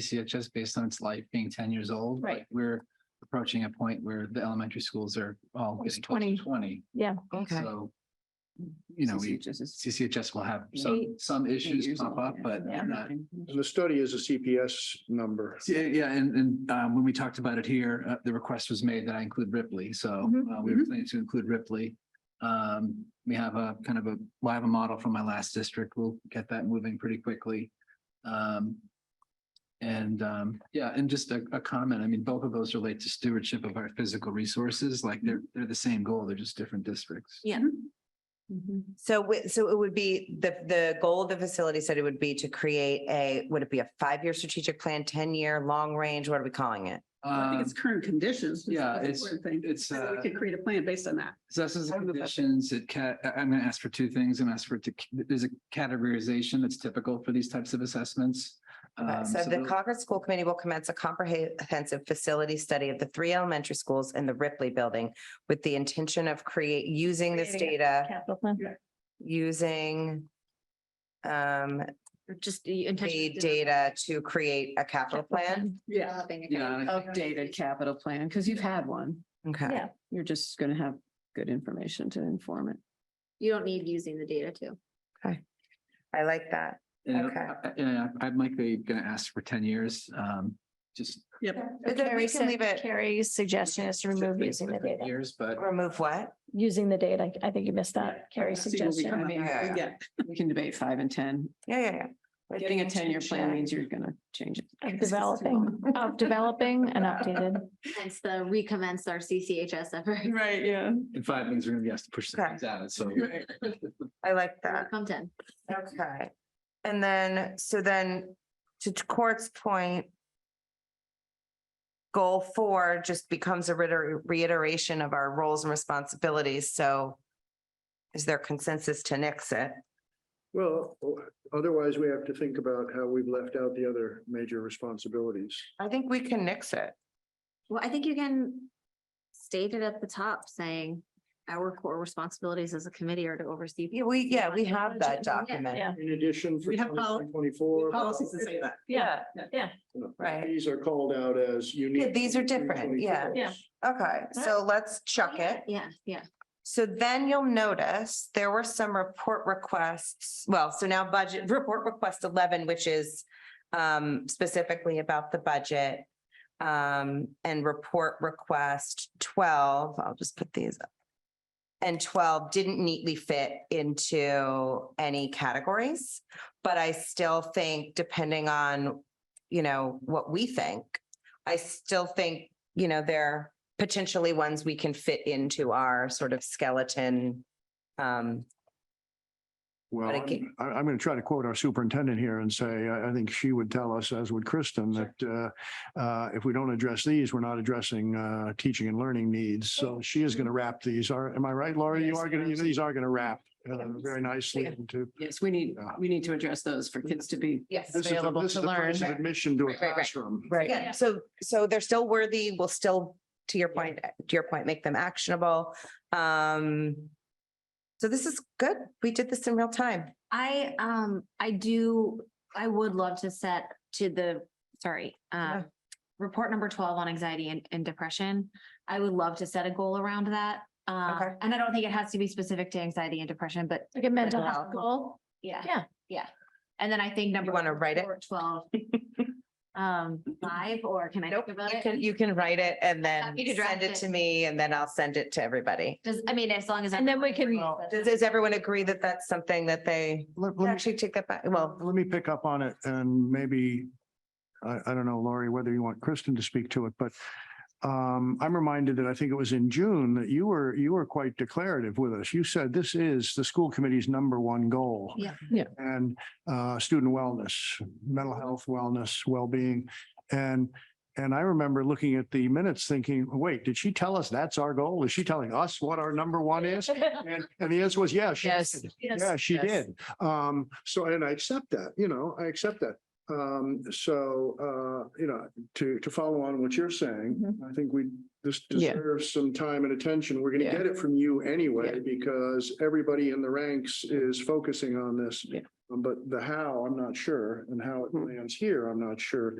CCHS based on its life being ten years old. Right. like, We're approaching a point where the elementary schools are all It's getting close to 20. twenty, Okay, so. You know, we, CCHS is CCHS will have some, Eight- some issues years pop old, up, yeah. but they're Yeah. not. And the study is a CPS number. Yeah, uh, yeah, and, and, um, when we talked about it here, uh, the request was made that I include Ripley, so, Mhm. Mm-hmm, uh, we were planning to include Ripley. Um, we have a kind of a, well, I have a model from my last district. We'll get that moving pretty quickly. Um, and, um, yeah, and just a, a comment. I mean, both of those relate to stewardship of our physical resources. Like they're, they're the same goal. They're just different districts. Mm-hmm. Yeah. So, wi- so it would be, the, the goal of the facility said it would be to create a, would it be a five-year strategic plan, ten-year, long-range, what are we calling it? I think it's Um, current conditions. is yeah, the it's- important thing. it's, So uh, We could create a plan based on that. Possesses the conditions, it ca- I- I'm gonna ask for two things. I'm gonna ask for, it to c- there's a categorization that's typical for these types of assessments. Okay, Um, Uh, So the those- Concord School Committee will commence a comprehensive facility study of the three elementary schools and the Ripley Building with the intention of create, using this Creating a data, Capital plan. using um, Just the the data to create a capital plan. Yeah. Yeah, and I think- Updated capital plan, because you've had one. Okay, Yeah. You're just going to have good information to inform it. You don't need using the data too. I like that. and okay. I- I- Yeah, I'm likely gonna ask for ten years, um, just. Yep. But then we can leave it, Carrie's suggestion is to remove using the data, Years, but remove what? using the data. I think you missed that. Carrie's See what we suggestion. come up with. Yeah, Yeah, we can debate five and ten. Yeah, yeah, yeah. But Getting a the ten-year plan intention- means you're going to change it. Of developing, of developing an updated. Hence the recommence our CCHS effort. Right, yeah. in five minutes, we're gonna be asked to push some things out, so. I like that. Come ten. Okay, and then, so then, to t- Court's point. Goal four just becomes a reiter- reiteration of our roles and responsibilities, so. Is there consensus to nix it? Well, otherwise we have to think about how we've left out the other major responsibilities. I think we can nix it. Well, I think you can state it at the top saying our core responsibilities as a committee are to oversee. Yeah, we, yeah, we have that Yeah. document. Yeah. In addition, for We have pol- twenty-four. Policies that say that. Yeah, right. These are called out as unique. Yeah, these are different, yeah. 2024s. Yeah. okay, so let's chuck it. Yeah, yeah. So then you'll notice there were some report requests. Well, so now budget, report request eleven, which is um, specifically about the budget. Um, and report request twelve, I'll just put these up. And twelve didn't neatly fit into any categories, but I still think depending on, you know, what we think, I still think, you know, they're potentially ones we can fit into our sort of skeleton. Um, Well, But I'm, again- I- I'm going to try to quote our superintendent here and say, I, I think she would tell us, as would Kristen, that uh, uh, if we don't address these, we're not addressing uh, teaching and learning needs. So she is going to wrap these. Are, am I right, Laura? You Yes, are going to, absolutely. these are going to wrap uh, Yeah. very nicely Yeah. into. Yes, we need, Yeah. we need to address those for kids to be yes. This is the- available this to is the learn. price of Admission to a Right, right, right. classroom. Right, so, so they're still worthy, we will still, to your point, to your point, make them actionable. Um, so this is good. We did this in real time. I, um, I do, I would love to set to the, sorry, Yeah. um, report number twelve on anxiety and, and depression. I would love to set a goal around that. Uh, Okay. and I don't think it has to be specific to anxiety and depression, but Like a mental Mental health health. goal. Yeah. Yeah. Yeah. And then I think number. wanna write it? four, Twelve. Um, five, or can I think about You can, it? you can write it and then Happy to draft send it it. to me and then I'll send it to everybody. Does, I mean, as long as. And then we everyone can- agrees, but- Does, does everyone agree that that's something that they Let- let me- actually take that back? Well, Let me pick up on it and maybe, I, I don't know, Laurie, whether you want Kristen to speak to it, but um, I'm reminded that I think it was in June that you were, you were quite declarative with us. You said this is the school committee's number one goal. Yeah. Yeah. And uh, student wellness, mental health, wellness, well-being. And, and I remember looking at the minutes thinking, wait, did she tell us that's our goal? Is she telling us what our number one is? And, and the answer was, yes. she Yes. did. Yeah, she did. Um, so, and I accept that, you know, I accept that. Um, so, uh, you know, to, to follow on what you're saying, I think we, this Mm-hmm. Yeah. deserves some time and attention. We're gonna Yeah. get it from you anyway, because everybody in the ranks is focusing on this. Um, Yeah. But the how, I'm not sure, and how it Hmm. lands here, I'm not sure.